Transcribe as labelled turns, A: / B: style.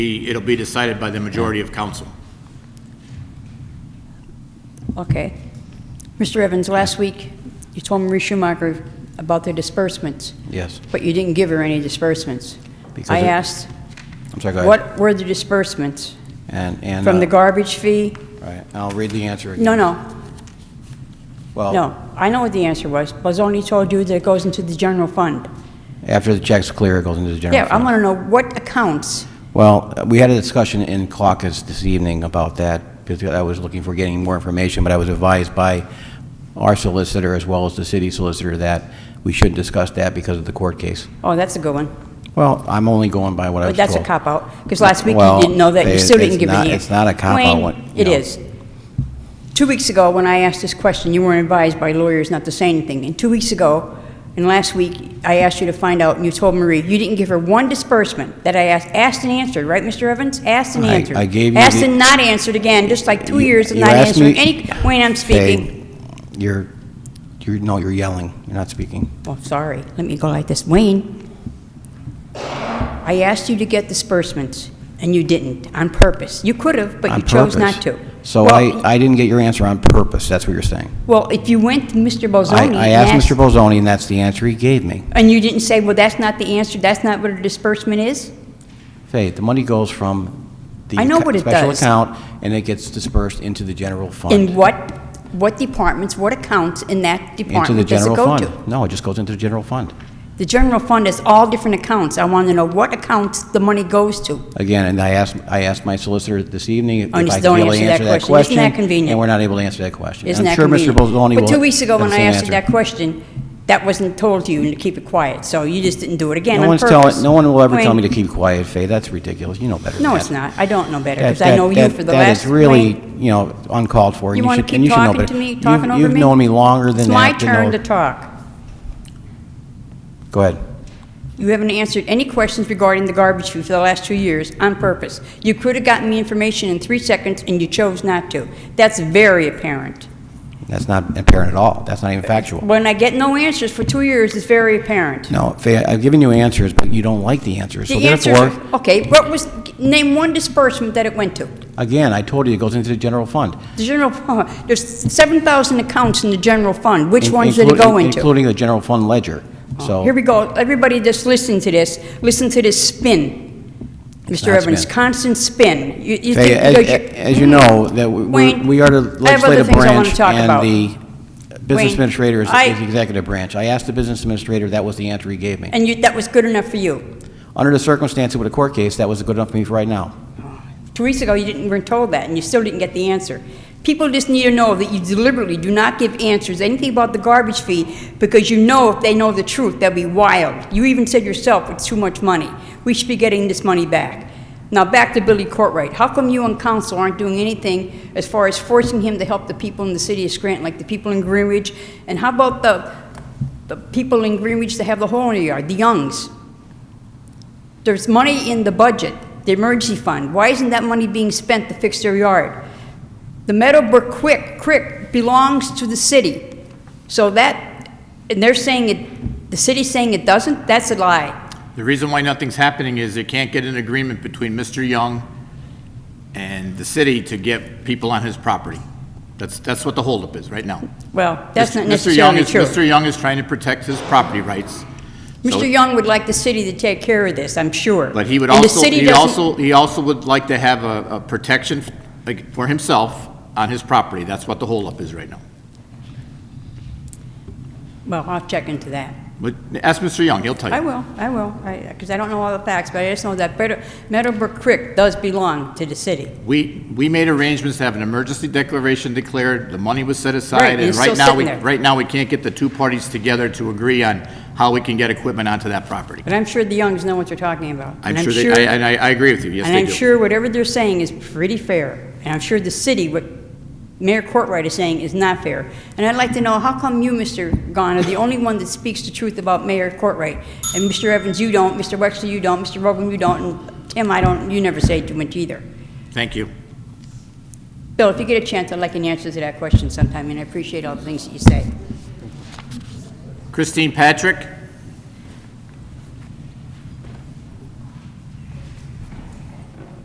A: Be- It'll be decided by the majority of council.
B: Okay. Mr. Evans, last week, you told Marie Schumacher about the disbursements,
C: Yes.
B: but you didn't give her any disbursements.
C: Because
B: I
C: it-
B: asked,
C: I'm sorry, go ahead.
B: what were the disbursements?
C: And, and.
B: From the
C: uh,
B: garbage fee?
C: Right, I'll read the answer again.
B: No, no,
C: Well,
B: no. I know what the answer was. Bozzoni told you that it goes into the general fund.
C: after the check's clear, it goes into the general
B: Yeah,
C: fund.
B: I want to know what accounts.
C: Well, we had a discussion in caucus this evening about that, because I was looking for getting more information, but I was advised by our solicitor as well as the city solicitor that we shouldn't discuss that because of the court case.
B: Oh, that's a good one.
C: Well, I'm only going by what I was
B: But
C: told.
B: that's a cop-out, because last week you
C: Well,
B: didn't know that, you
C: it-
B: still didn't
C: it's
B: give me the
C: not-
B: answer.
C: it's not a cop-out,
B: Wayne,
C: what-
B: It
C: no.
B: is. Two weeks ago, when I asked this question, you weren't advised by lawyers not to say anything. And two weeks ago, and last week, I asked you to find out, and you told Marie, you didn't give her one disbursement that I asked, asked and answered, right, Mr. Evans? Asked and
C: I-
B: answered.
C: I gave you
B: Asked
C: the-
B: and not answered again, just like two years of
C: You
B: not
C: asked me-
B: answering any, Wayne, I'm speaking.
C: Hey, You're, you're, no, you're yelling, you're not speaking.
B: Oh, sorry, let me go like this. Wayne, I asked you to get disbursements, and you didn't, on purpose. You could have, but
C: On
B: you chose
C: purpose.
B: not to.
C: So
B: Well,
C: I, I didn't get your answer on purpose, that's what you're saying.
B: Well, if you went to Mr.
C: I,
B: Bozzoni.
C: I asked Mr. Bolzoni, and that's the answer he gave me.
B: And you didn't say, well, that's not the answer, that's not what a disbursement is?
C: Faith, the money goes from the
B: I know
C: acc-
B: what it
C: special
B: does.
C: account, and it gets dispersed into the general fund.
B: In what, what departments, what accounts in that
C: Into the
B: department does it
C: general
B: go
C: fund.
B: to?
C: No, it just goes into the general fund.
B: The general fund is all different accounts. I want to know what accounts the money goes to.
C: Again, and I asked, I asked my solicitor this evening if
B: Oh, and
C: I
B: you
C: could
B: don't
C: be able to
B: answer that
C: answer that
B: question. Isn't
C: question.
B: that convenient?
C: And we're not able to answer that question.
B: Isn't that convenient?
C: I'm sure Mr. Bolzoni will.
B: But two weeks ago,
C: have the
B: when I
C: same
B: asked you
C: answer.
B: that question, that wasn't told to you and to keep it quiet, so you just didn't do it again
C: No
B: on
C: one's
B: purpose.
C: telling, no one will ever tell
B: Wayne,
C: me to keep quiet, Faith, that's ridiculous, you know better than
B: No,
C: that.
B: it's not. I don't know better,
C: That-
B: because I
C: that-
B: know you
C: that-
B: for the last...
C: That is really,
B: Wayne,
C: you know, uncalled for. and
B: You want
C: should-
B: to
C: and
B: keep
C: should know
B: talking
C: better.
B: to me,
C: You've-
B: talking over me?
C: You've known me longer than that.
B: It's my turn
C: know-
B: to talk.
C: Go ahead.
B: You haven't answered any questions regarding the garbage fee for the last two years on purpose. You could have gotten me information in three seconds, and you chose not to. That's very apparent.
C: That's not apparent at all, that's not even factual.
B: When I get no answers for two years, it's very apparent.
C: No, Faye, I've given you answers, but you don't like the answers. So
B: The answer,
C: therefore,
B: okay, what was, name one disbursement that it went to.
C: again, I told you, it goes into the general fund.
B: The general, fund. there's 7,000 accounts in the general fund. Which
C: in-
B: ones did it go
C: including-
B: into? Oh,
C: Including the general fund ledger. So,
B: Here we go. Everybody just listen to this. Listen to this spin. Mr.
C: not
B: Evans,
C: spin.
B: constant spin. You- you
C: Faye,
B: think
C: as-
B: because you-
C: as you know, that we- we're-
B: Wayne,
C: we are the
B: I have other
C: legislative
B: things I want to
C: branch
B: talk about.
C: and the business
B: Wayne,
C: administrator is
B: I-
C: is the executive branch. I asked the business administrator, that was the answer he gave me.
B: And you, that was good enough for you.
C: Under the circumstances with a court case, that was good enough for me for right now.
B: Two weeks ago, you didn't, weren't told that, and you still didn't get the answer. People just need to know that you deliberately do not give answers, anything about the garbage fee, because you know if they know the truth, they'll be wild. You even said yourself, it's too much money. We should be getting this money back. Now, back to Billy Courtright. How come you and council aren't doing anything as far as forcing him to help the people in the city of Scranton, like the people in Greenwich? And how about the, the people in Greenwich that have the hole in their yard, the Youngs? There's money in the budget, the emergency fund. Why isn't that money being spent to fix their yard? The Meadowbrook Quick, Creek belongs to the city. So that, and they're saying it, the city's saying it doesn't, that's a lie.
A: The reason why nothing's happening is they can't get an agreement between Mr. Young and the city to get people on his property. That's, that's what the holdup is right now.
B: Well, that's not
A: Mr. Young
B: necessarily
A: is-
B: true.
A: Mr. Young is trying to protect his property rights. So-
B: Mr. Young would like the city to take care of this, I'm sure.
A: But he would
B: And the
A: also,
B: city
A: he
B: doesn't-
A: also, he also would like to have a, a protection like, for himself on his property. That's what the holdup is right now.
B: Well, I'll check into that.
A: But ask Mr. Young, he'll tell
B: I
A: you.
B: will, I will, because I don't know all the facts, but I just know that Meadow- Meadowbrook Creek does belong to the city.
A: We, we made arrangements to have an emergency declaration declared, the money was set
B: Right,
A: aside,
B: and
A: and
B: it's
A: right
B: still
A: now,
B: sitting
A: we,
B: there.
A: right now, we can't get the two parties together to agree on how we can get equipment onto that property.
B: But I'm sure the Youngs know what they're talking about.
A: I'm
B: And
A: sure, they- I, and I, I agree with you, yes,
B: And
A: they
B: I'm
A: do.
B: sure whatever they're saying is pretty fair. And I'm sure the city, what Mayor Courtwright is saying is not fair. And I'd like to know, how come you, Mr. Gahn, are the only one that speaks the truth about Mayor Courtwright? And Mr. Evans, you don't, Mr. Wexler, you don't, Mr. Rogan, you don't, and Tim, I don't, you never say too much either.
A: Thank you.
B: Bill, if you get a chance, I'd like an answer to that question sometime, and I appreciate all the things that you say.
A: Christine Patrick?